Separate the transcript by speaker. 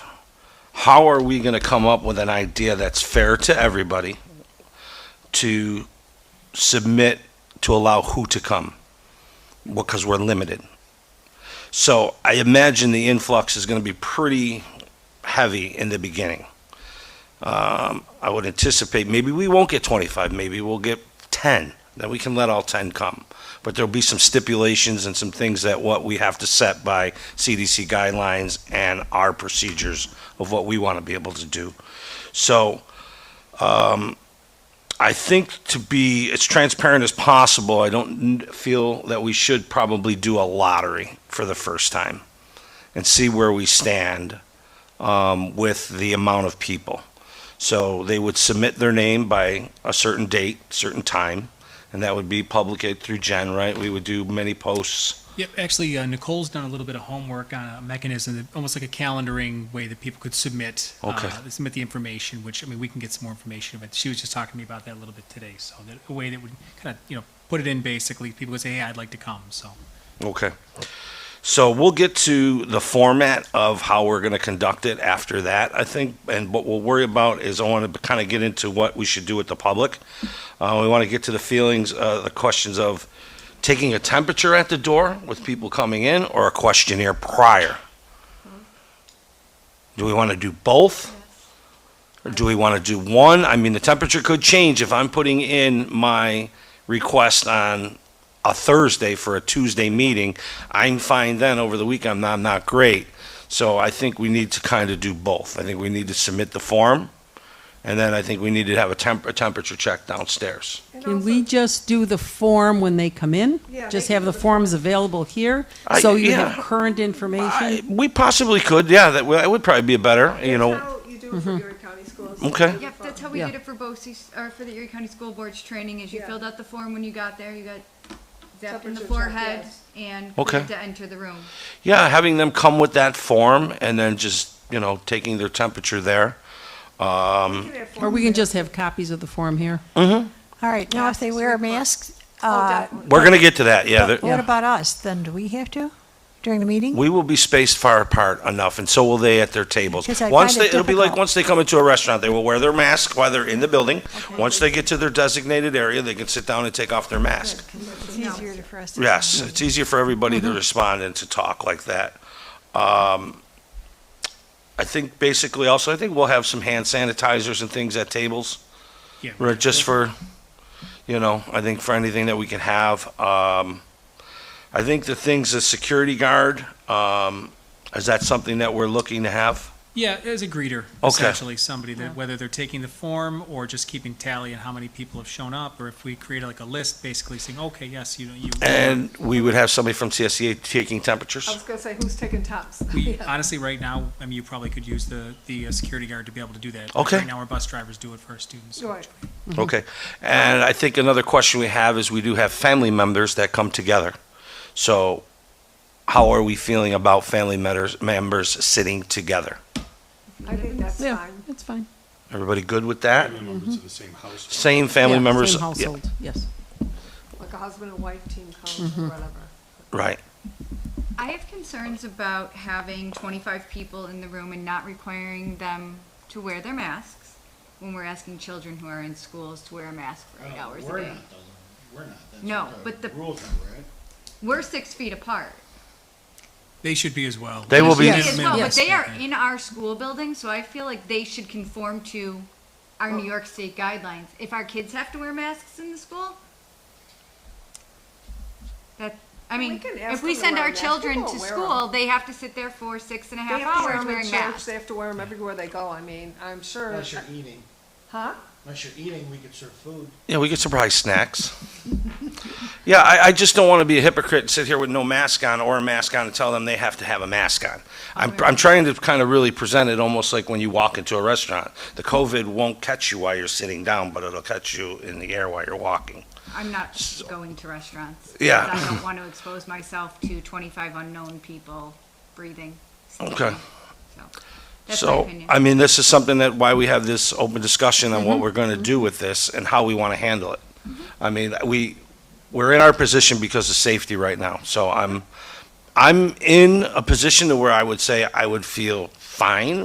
Speaker 1: how are we going to come up with an idea that's fair to everybody to submit to allow who to come? Because we're limited. So I imagine the influx is going to be pretty heavy in the beginning. Um, I would anticipate maybe we won't get 25, maybe we'll get 10. Then we can let all 10 come. But there'll be some stipulations and some things that what we have to set by CDC guidelines and our procedures of what we want to be able to do. So um, I think to be as transparent as possible, I don't n- feel that we should probably do a lottery for the first time and see where we stand um, with the amount of people. So they would submit their name by a certain date, certain time, and that would be publicated through Gen, right? We would do many posts.
Speaker 2: Yep, actually, uh, Nicole's done a little bit of homework on a mechanism, that, almost like a calendaring way that people could submit,
Speaker 1: Okay.
Speaker 2: uh, submit the information. Which I mean, we can get some more information, but she was just talking to me about that a little bit today. So that a way that would kind of you know put it in basically, people would say, "Hey, I'd like to come." So
Speaker 1: Okay. So we'll get to the format of how we're going to conduct it after that, I think. And what we'll worry about is I want to kind of get into what we should do with the public. Uh, we want to get to the feelings, uh, the questions of taking a temperature at the door with people coming in or a questionnaire prior. Do we want to do both? Or do we want to do one? I mean, the temperature could change if I'm putting in my request on a Thursday for a Tuesday meeting. I'm fine then over the weekend. I'm not, I'm not great. So I think we need to kind of do both. I think we need to submit the form, and then I think we need to have a, temp- a temperature check downstairs.
Speaker 3: And
Speaker 4: Can
Speaker 3: also-
Speaker 4: we just do the form when they come in?
Speaker 3: Yeah,
Speaker 4: Just
Speaker 3: they
Speaker 4: have
Speaker 3: can
Speaker 4: the
Speaker 3: do the
Speaker 4: forms available here,
Speaker 1: I-
Speaker 4: so you
Speaker 1: yeah.
Speaker 4: have current
Speaker 1: I,
Speaker 4: information?
Speaker 1: we possibly could, yeah. That, w- that would probably be a better, you
Speaker 3: That's
Speaker 1: know.
Speaker 3: how you do it
Speaker 4: Mm-hmm.
Speaker 3: for Erie County schools.
Speaker 1: Okay.
Speaker 5: Yep, that's how we
Speaker 4: Yeah.
Speaker 5: did it for BOCES, or for the Erie County School Board's training, is you
Speaker 3: Yeah.
Speaker 5: filled out the form when you got there, you got zapped in
Speaker 3: Temperature
Speaker 5: the
Speaker 3: check,
Speaker 5: forehead,
Speaker 3: yes.
Speaker 5: and
Speaker 1: Okay.
Speaker 5: clicked to enter the room.
Speaker 1: Yeah, having them come with that form and then just, you know, taking their temperature there. Um,
Speaker 4: Or we can just have copies of the form here?
Speaker 6: All right, now if they wear masks,
Speaker 3: Oh,
Speaker 6: uh,
Speaker 1: we're going to get to that, yeah.
Speaker 6: what
Speaker 1: there-
Speaker 6: about us? Then do we have to during the meeting?
Speaker 1: We will be spaced far apart enough, and so will they at their tables.
Speaker 6: Because I
Speaker 1: Once
Speaker 6: find
Speaker 1: they,
Speaker 6: it
Speaker 1: it'll be like,
Speaker 6: difficult.
Speaker 1: once they come into a restaurant, they will wear their mask while they're in the building. Once they get to their designated area, they can sit down and take off their mask.
Speaker 6: It's easier to- for us to.
Speaker 1: Yes, it's easier for everybody
Speaker 6: Mm-hmm.
Speaker 1: to respond and to talk like that. Um, I think basically also, I think we'll have some hand sanitizers and things at tables.
Speaker 2: yeah,
Speaker 1: Right, just for, you know, I think for anything that we can have. Um, I think the things, the security guard, um, is that something that we're looking to have?
Speaker 2: yeah, as a greeter,
Speaker 1: Okay.
Speaker 2: essentially somebody that whether they're taking the form or just keeping tally on how many people have shown up, or if we create like a list, basically saying, "Okay, yes, you know, you."
Speaker 1: And we would have somebody from CSEA taking
Speaker 3: I
Speaker 1: temperatures?
Speaker 3: was gonna say, who's taking tops?
Speaker 2: We, honestly, right now, I mean, you probably could use the, the uh, security guard to be able to do that.
Speaker 1: Okay.
Speaker 2: Right now, our bus drivers do it for our students.
Speaker 3: Right.
Speaker 1: Okay. And I think another question we have is we do have family members that come together. So how are we feeling about family members, members sitting together?
Speaker 3: I think that's
Speaker 4: Yeah,
Speaker 3: fine.
Speaker 4: that's fine.
Speaker 1: Everybody good with that?
Speaker 7: family members of the same household.
Speaker 1: Same family
Speaker 4: Yeah,
Speaker 1: members?
Speaker 4: Same
Speaker 1: yeah,
Speaker 4: household, yes.
Speaker 3: Like a husband and wife team comes
Speaker 4: Mm-hmm.
Speaker 3: or whatever.
Speaker 1: Right.
Speaker 5: I have concerns about having twenty-five people in the room and not requiring them to wear their masks when we're asking children who are in schools to wear a mask for eight hours a
Speaker 8: Oh, We're
Speaker 5: day.
Speaker 8: not, though. We're not. That's
Speaker 5: No,
Speaker 8: what
Speaker 5: but the-
Speaker 8: Rules are, right?
Speaker 5: We're six feet apart.
Speaker 2: They should be as well.
Speaker 1: They will be-
Speaker 2: should
Speaker 4: Yes.
Speaker 5: as well, but
Speaker 2: Yes.
Speaker 5: they are in our school building, so I feel like they should conform to our New York State guidelines. If our kids have to wear masks in the school, that, I
Speaker 3: We
Speaker 5: mean,
Speaker 3: can ask
Speaker 5: if we
Speaker 3: them to
Speaker 5: send
Speaker 3: wear
Speaker 5: our
Speaker 3: a mask.
Speaker 5: children
Speaker 3: People
Speaker 5: to
Speaker 3: wear
Speaker 5: school, they have to sit there for six and a
Speaker 3: They
Speaker 5: half
Speaker 3: have to wear
Speaker 5: hours
Speaker 3: 'em in
Speaker 5: wearing
Speaker 3: church,
Speaker 5: masks.
Speaker 3: they have to wear them everywhere they go, I mean, I'm sure.
Speaker 8: Unless you're eating,
Speaker 3: Huh?
Speaker 8: unless you're eating, we could serve food.
Speaker 1: Yeah, we could surprise snacks. yeah, I, I just don't want to be a hypocrite and sit here with no mask on or a mask on and tell them they have to have a mask on. I'm, I'm trying to kind of really present it almost like when you walk into a restaurant. The COVID won't catch you while you're sitting down, but it'll catch you in the air while you're walking.
Speaker 5: I'm not going to restaurants. 'cause
Speaker 1: Yeah.
Speaker 5: I don't want to expose myself to twenty-five unknown people breathing.
Speaker 1: Okay.
Speaker 5: So, That's my
Speaker 1: so,
Speaker 5: opinion. Mm-hmm.
Speaker 1: I mean, this is something that why we have this open discussion on what we're going to do with this and how we want to handle it. I mean, we we're in our position because of safety right now. So I'm I'm in a position to where I would say I would feel fine